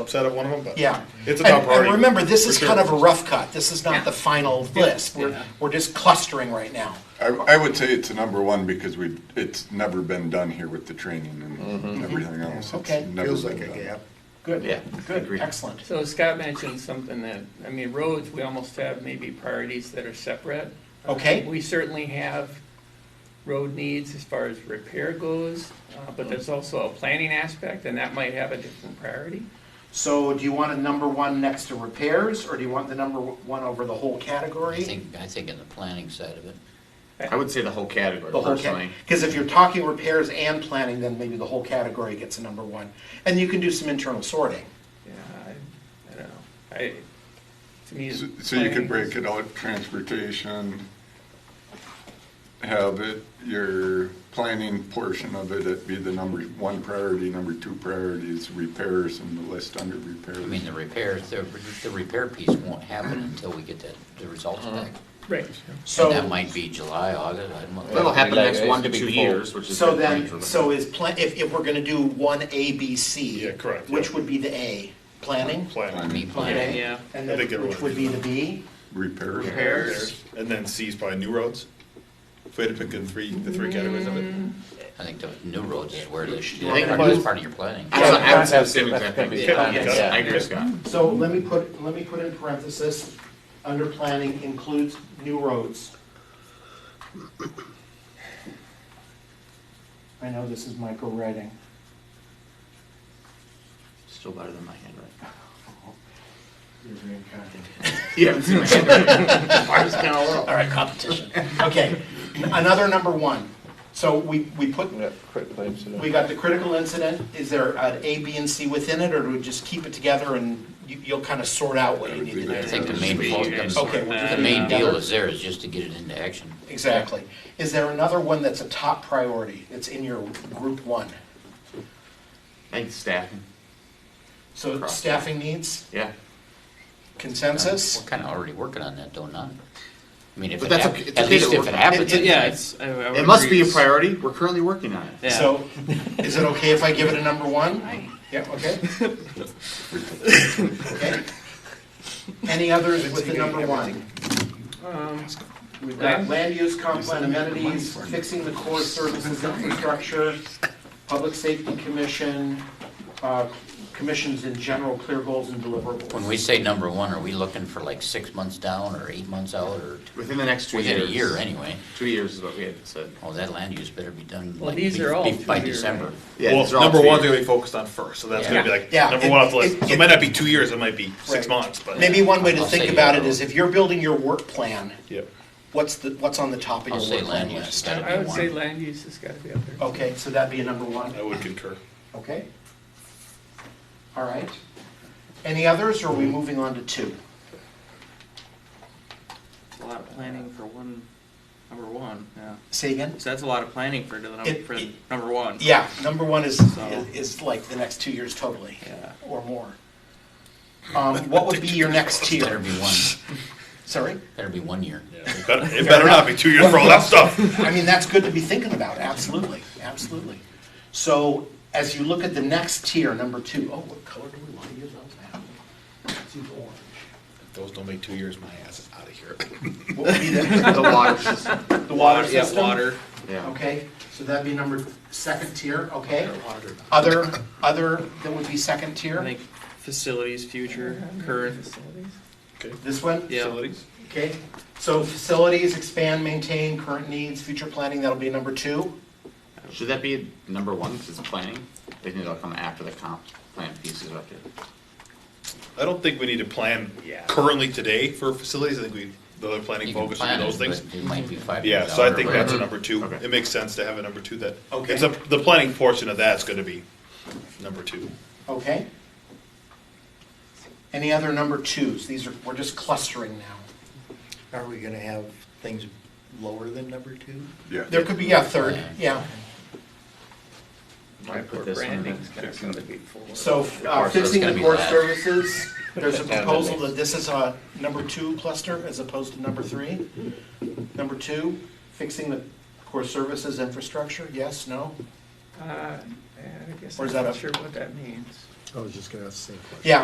upset at one of them, but Yeah. it's a And- top priority. And remember, this for is sure. kind of a rough cut. This is not the final list. We're, we're just clustering right now. I, I would say it's a number one because we, it's never been done here with the training and everything else. It's Okay. never Mm-hmm. Feels been like a done. gap. Good, Yeah, good, agreed. excellent. So Scott mentioned something that, I mean, roads, we almost have maybe priorities that are separate. Okay? We certainly have road needs as far as repair goes, uh, but there's also a planning aspect, and that might have a different priority. So do you want a number one next to repairs, or do you want the number one over the whole I category? think, I think in the planning side of it. I would say the whole category The whole personally. category. Because if you're talking repairs and planning, then maybe the whole category gets a number one. And you can do some internal sorting. Yeah, I, I don't know. I, to me. So so you could break it out, transportation, have it, your planning portion of it, it be the number one priority, number two priorities, repairs and the list under I mean, repairs. the repairs, the, the repair piece won't happen until we get that, the results back. Right. And So. that might be July, August, I don't know. That'll happen Like, next one to it's two twofold. years, which is. So good then, range. so is plan, if, if we're gonna do one A, B, C. Yeah, correct, yeah. Which would be the A, planning? Planning, Me planning. Yeah. And I then, think it which would be the B? Repairs. Repairs. and then C's probably new roads. If we had to pick the three, the three categories of it. Mm. I think the new roads is where this, think that's part of your planning. I don't know, I would say the That's- same that's exact gonna thing. be Yeah, fun. yes, I agree with Scott. So let me put, let me put in parenthesis, under planning includes new roads. I know this is micro writing. Still better than my handwriting. You're very kind. You haven't seen my handwriting. Ours is kinda low. All right, competition. Okay, another number one. So we, we put, Yeah, quick claims to do. we got the critical incident. Is there an A, B, and C within it, or do we just keep it together and you, you'll kind of sort out what you need to do? I think the main, focus- Okay, we'll do Uh, the that main another- deal is there is just to get it into action. Exactly. Is there another one that's a top priority, that's in your group one? Thanks, staffing. So Cross. staffing needs, Yeah. consensus? We're kind of already working on that, though, not? I mean, if But it that's hap, okay, it's at okay least to if work it on. happens. It- Yeah, it's. I- I would It must be a agree. priority. We're currently working on it. Yeah. So, is it okay if I give it a number one? Yeah, okay. Okay. Any others with the number one? Um, We've got land use, comp plan amenities, fixing the core services infrastructure, public safety commission, uh, commissions in general, clear goals and deliverables. When we say number one, are we looking for like six months down or eight months out or Within the next two years. within a year anyway? Two years is what we had said. Oh, that land use better be done Well, like these are all be- be- by two-year, December. right? Yeah, well, these are all number two one's years. gonna be focused on first, so that's gonna be Yeah. like Yeah, number it- one off the list. it- So it might not be two years, it might be six Right. months, but Maybe one way to I'll say think about it yellow. is if you're building your work plan, Yep. what's the, what's on the top of I'll your say work plan land use has list? gotta I I be would say one. land use has got to be up there. Oh. Okay, so that'd be a number one, I would concur. okay? All right. Any others, or are we moving on to two? It's a lot of planning for one, number one, yeah. Say again? So that's a lot of planning for the number, It- for it- number one. Yeah, number one is, So- is like the next two years totally, Yeah. or more. Um, what would be your next Better tier? be one, Sorry? better be one year. It better, it better not be two years for all that stuff. I mean, that's good to be thinking about, absolutely, absolutely. So as you look at the next tier, number two, oh, what color do we want to use on that? Let's use orange. If those don't make two years, my ass is out of here. What would be the, The water system. the water Yeah, system? water. Yeah. Okay, so that'd be number, second tier, okay? Other, other, that would be second I tier? think facilities, future, current. Facilities. This one? Yeah. Facilities? Okay, so facilities, expand, maintain, current needs, future planning, that'll be number two? Should that be number one because it's planning? They think that'll come after the comp plan piece is up there. I don't think we need to plan Yeah. currently today for facilities, I think we, the other planning You can focus on plan it, those things. but it might be five Yeah, years so I out or think whatever. that's a number two. Okay. It makes sense to have a number two that, Okay. it's a, the planning portion of that's gonna be number two. Okay. Any other number twos? These are, we're just clustering now. Are we gonna have things lower than number two? Yeah. There could be, yeah, third, yeah. I put this one. Branding's got to be four. So uh, course, that's fixing gonna the be core last. services, there's a Yeah, that proposal makes- that this is a number two cluster as opposed to number three. Number two, fixing the core services infrastructure, yes, no? Uh, I guess Or I'm is that not a- sure what that means. I was just gonna ask the same question. Yeah,